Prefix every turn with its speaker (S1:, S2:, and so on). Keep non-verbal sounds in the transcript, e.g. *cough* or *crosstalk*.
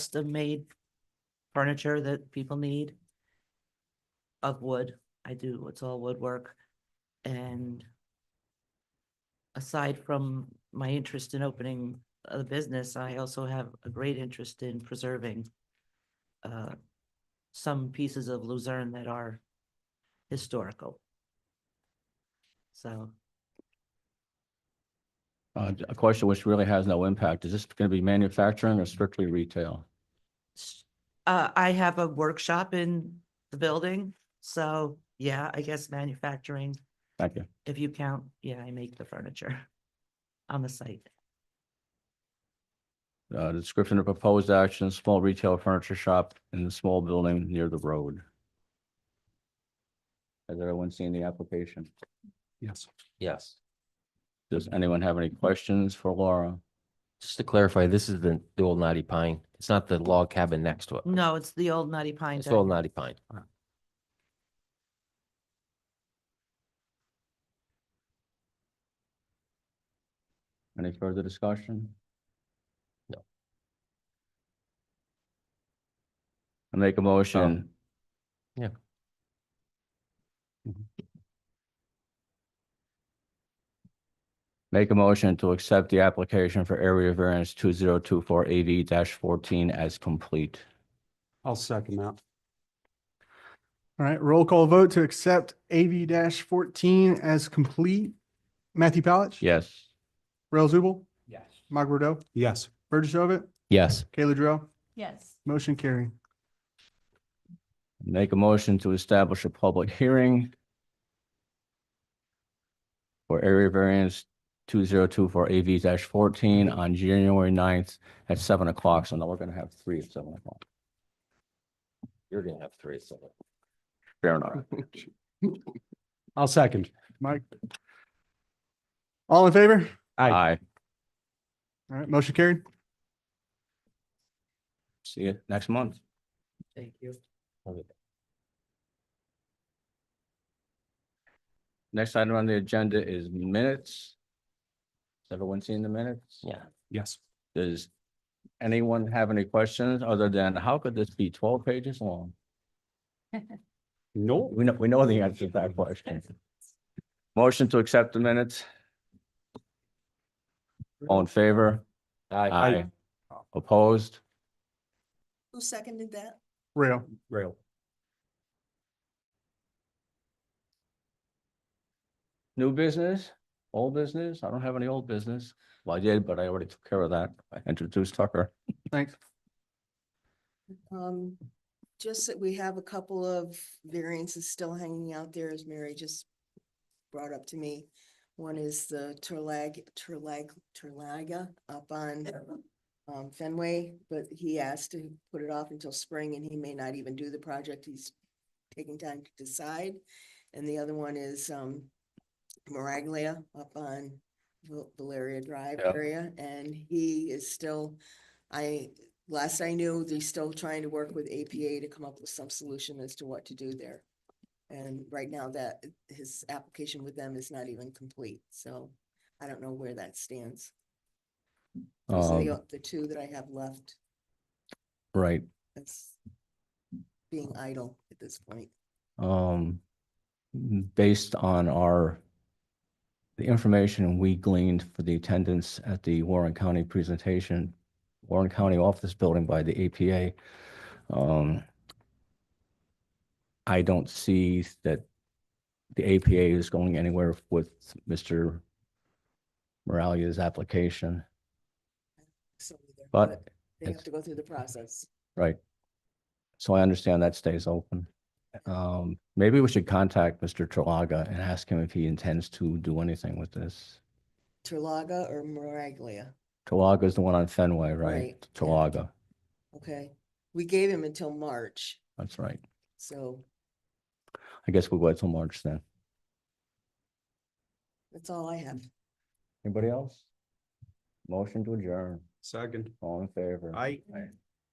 S1: custom-made furniture that people need of wood. I do, it's all woodwork. And aside from my interest in opening a business, I also have a great interest in preserving uh, some pieces of Luzerne that are historical. So
S2: Uh, a question which really has no impact. Is this going to be manufacturing or strictly retail?
S1: s- uh, I have a workshop in the building, so yeah, I guess manufacturing,
S2: Thank you.
S1: if you count, yeah, I make the furniture *laughs* on the site.
S2: Uh, description of proposed action, small retail furniture shop in a small building near the road. Has everyone seen the application?
S3: Yes.
S4: Yes.
S2: Does anyone have any questions for Laura?
S4: Just to clarify, this is the, the old knotty pine. It's not the log cabin next to it.
S1: No, it's the old Nutty Pine
S4: It's
S1: deck.
S4: old knotty pine.
S2: Any further discussion?
S4: No.
S2: I make a motion.
S4: Oh, yeah.
S2: Mhm. Make a motion to accept the application for area variance two zero two four AV fourteen as complete.
S3: I'll second that. All right, roll call vote to accept AV fourteen as complete. Matthew Palich?
S2: Yes.
S3: Rail Zubel?
S2: Yes.
S3: Mike Rodeau? Yes. Burgess Ovitt?
S4: Yes.
S3: Kayla Drill?
S5: Yes,
S3: Motion carrying.
S2: Make a motion to establish a public hearing for area variance two zero two four AV fourteen on January 9th at seven o'clock. So now we're gonna have three at seven o'clock.
S4: You're gonna have three, so.
S2: Fair enough.
S3: I'll second. Mike? All in favor?
S2: Aye.
S3: All right, motion carried.
S2: See you next month.
S1: Thank you.
S2: Next item on the agenda is minutes. Has everyone seen the minutes?
S4: Yeah.
S3: Yes.
S2: Does anyone have any questions other than how could this be twelve pages long?
S3: No.
S2: We know, we know the answer to that question. Motion to accept the minutes. All in favor?
S4: Aye.
S2: Opposed?
S6: Who seconded that?
S3: Rail.
S4: Rail.
S2: New business? Old business? I don't have any old business. Well, I did, but I already took care of that. I introduced Tucker.
S3: Thanks.
S6: Um, just that we have a couple of variances still hanging out there as Mary just brought up to me. One is the Turlag, Turlag, Turlaga up on um Fenway, but he asked to put it off until spring and he may not even do the project. He's taking time to decide. And the other one is um Maraglia up on Val- Valeria Drive
S2: Yeah.
S6: area and he is still, I last I knew, they're still trying to work with APA to come up with some solution as to what to do there. And right now that his application with them is not even complete, so I don't know where that stands. Those are the,
S2: Um,
S6: o- the two that I have left
S2: Right.
S6: as being idle at this point.
S2: um, based on our, the information we gleaned for the attendance at the Warren County presentation, Warren County Office Building by the APA, um, I don't see that the APA is going anywhere with Mr. Moralia's application,
S6: So either-
S2: but,
S6: They have
S2: it's-
S6: to go through the process.
S2: right. So I understand that stays open. Um, maybe we should contact Mr. Tralaga and ask him if he intends to do anything with this.
S6: Terlaga or Maraglia,
S2: Tralaga is the one on Fenway,
S6: Right,
S2: right?
S6: yeah.
S2: Tralaga,
S6: okay? We gave him until March,
S2: that's right.
S6: so
S2: I guess we'll wait till March then.
S6: that's all I have.
S2: Anybody else? Motion to adjourn,
S3: Second.
S2: all in favor?
S3: Aye.